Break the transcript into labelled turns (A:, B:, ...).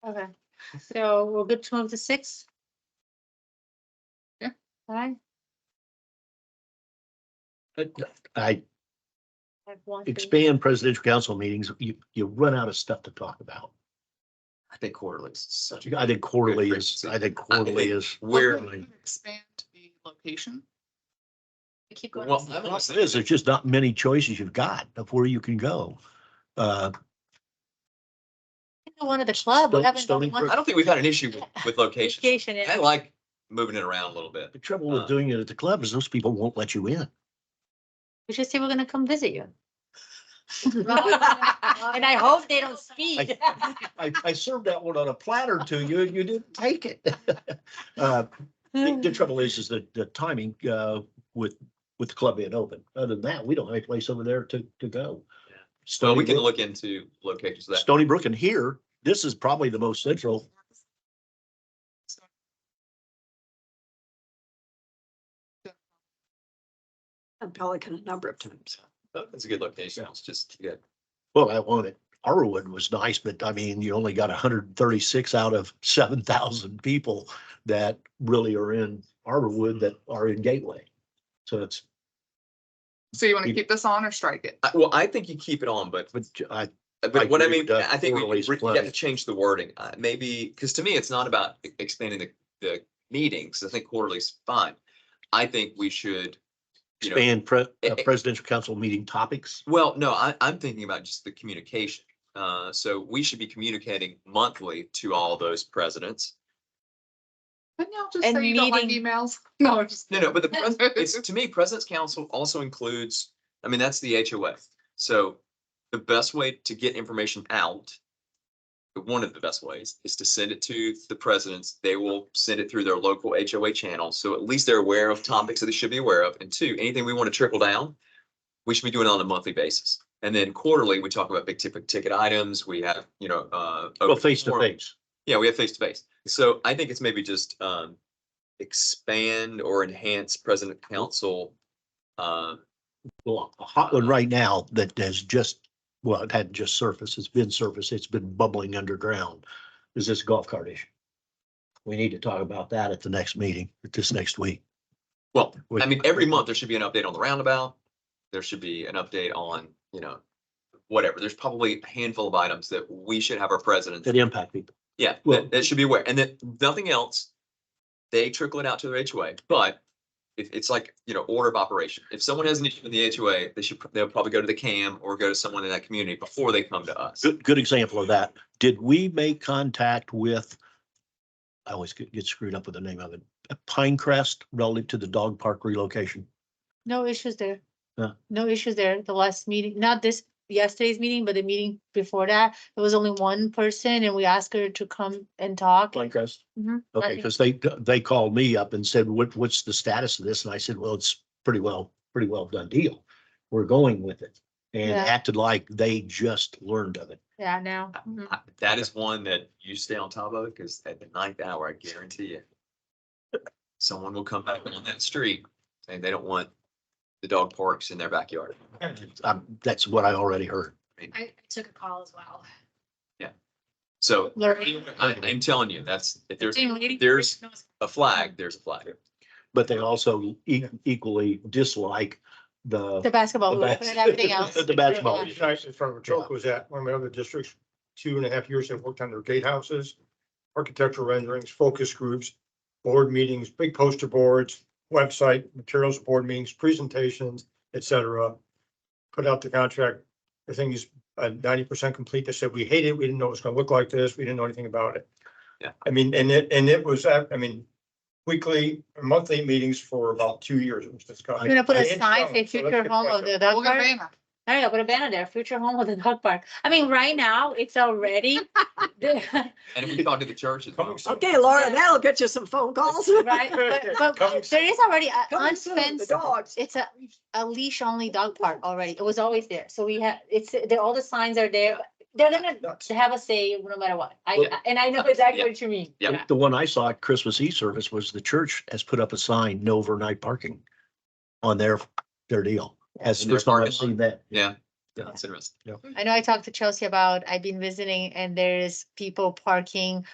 A: So we're good twelve to six?
B: Yeah.
A: Aye.
C: But I
A: I have one thing.
C: expand presidential council meetings, you, you run out of stuff to talk about.
D: I think quarterly is such a,
C: I think quarterly
D: Good
C: is,
D: frequency.
C: I think quarterly is.
D: where,
B: Well, we can Expand the location.
A: Keep going.
D: well, I
C: Well,
D: was
C: it is, there's just not many choices you've got of where you can go. Uh,
A: One of the club. we
C: Stone-
A: haven't
C: Stony
A: done one
D: I don't think we've had an issue with, with locations.
A: Vacation, yeah.
D: I like moving it around a little bit.
C: the trouble with doing it at the club is those people won't let you in.
A: we should say we're gonna come visit you. And
B: And
A: I hope they don't speak.
C: I, I served that one on a platter to you and you didn't take it. Uh, The the trouble is, is the, the timing, uh, with, with the club being open. Other than that, we don't have any place over there to, to go.
D: So
C: Stony
D: we can
C: Brook,
D: look into locations of that.
C: Stony Brook and here, this is probably the most central.
E: and Pelican a number of times.
D: It's a good location. It's just, yeah.
C: Well, I wanted, Arrowood was nice, but I mean, you only got hundred and thirty-six out of seven thousand people that really are in
D: Hmm.
C: Arborwood that are in Gateway. So it's,
B: So you want to keep this on or strike it?
D: I- Well, I think you keep it on, but,
C: but I,
D: uh,
C: I
D: but what I
C: agree
D: mean,
C: with that.
D: I think we-
C: Quarterly is
D: we, you have
C: plenty.
D: to change the wording. Uh, maybe, because to me, it's not about e- expanding the, the meetings. I think quarterly's fine. I think we should, you know,
C: expand pre-
D: eh,
C: uh,
D: eh.
C: presidential council meeting topics.
D: Well, no, I, I'm thinking about just the communication. Uh, so we should be communicating monthly to all those presidents.
B: Couldn't y'all just
A: And
B: say you don't like
A: meeting-
B: emails? No, I'm just.
D: No, no, but the, pres- it's, to me, President's Council also includes, I mean, that's the HOA. So the best way to get information out, one of the best ways, is to send it to the presidents. They will send it through their local HOA channel. So at least they're aware of topics that they should be aware of. And two, anything we want to trickle down, we should be doing it on a monthly basis. And then quarterly, we talk about big ticket, ticket items. We have, you know, uh.
C: Well,
D: open
C: face to
D: forum.
C: face.
D: Yeah, we have face to face. So I think it's maybe just um expand or enhance president council. Um,
C: Well, a hot one right now that has just, well, it hadn't just surfaced, it's been surfaced, it's been bubbling underground, is this golf cart issue. We need to talk about that at the next meeting, this next week.
D: well, I mean, every month there should be an update on the roundabout. There should be an update on, you know, whatever. There's probably a handful of items that we should have our presidents.
C: That impact people.
D: Yeah,
C: Well-
D: that, that should be aware. And then nothing else, they trickle it out to their HOA, but it, it's like, you know, order of operation. If someone has an issue in the HOA, they should, pr- they'll probably go to the CAM or go to someone in that community before they come to us.
C: Good, good example of that. Did we make contact with? I always get get screwed up with the name of it. Pinecrest relative to the dog park relocation.
A: No issues there.
C: Yeah.
A: No issues there. The last meeting, not this, yesterday's meeting, but the meeting before that, there was only one person and we asked her to come and talk.
C: Pinecrest.
A: Mhm.
C: Okay, because they, they called me up and said, what, what's the status of this? And I said, well, it's pretty well, pretty well done deal. We're going with it. And
A: Yeah.
C: acted like they just learned of it.
A: Yeah, now.
D: I-
F: Um,
A: Mhm.
D: I- That is one that you stay on top of, because at the ninth hour, I guarantee you. Someone will come back on that street and they don't want the dog parks in their backyard.
C: Um, that's what I already heard.
F: I I took a call as well.
D: So
A: Lorraine.
D: I, I'm telling you, that's, if there's
A: Same lady.
D: there's- a flag, there's a flag.
C: But they also e- equally dislike the.
A: The basketball,
C: the
A: hoop
C: bas-
A: and everything else.
C: The basketball.
A: Yeah.
G: Nice in front of Troc was at one of my other districts, two and a half years, I've worked on their gatehouses, architectural renderings, focus groups, board meetings, big poster boards, website, materials, board meetings, presentations, et cetera. Put out the contract, the thing is uh, ninety percent complete, they said, we hate it, we didn't know it was gonna look like this, we didn't know anything about it.
D: Yeah.
G: I mean, and it, and it was, uh, I I mean, weekly, monthly meetings for about two years, it was discussed.
A: We're gonna put
G: I
A: a
G: didn't
A: sign,
G: know,
A: say
G: so let's
A: future
G: get
A: home
G: back
A: of
G: up.
A: the
B: We'll
A: dog
B: get
A: park.
B: Vanna.
A: I don't know, put a banner there, future home of the dog park. I mean, right now, it's already. the-
D: And if we talk to the churches.
G: Coming soon.
E: Okay, Laura, that'll get you some phone calls.
A: Right, but,
G: Coming
A: but
G: soon.
A: there is already a
E: Coming soon, The
A: unfenced
E: dogs.
A: it's a, a leash only dog park already. It was always there. So we have, it's, the- all the signs are there. They're gonna
G: Nuts.
A: have a say no matter what. I,
C: Well-
A: I- and I know exactly what you mean.
D: Yeah.
C: The one I saw at Christmas Eve service was the church has put up a sign, no overnight parking on their, their deal. As
D: In their
C: first time I've
D: parking lot?
C: seen that.
D: Yeah, yeah, that's interesting.
A: I know I talked to Chelsea about, I've been visiting and there is people parking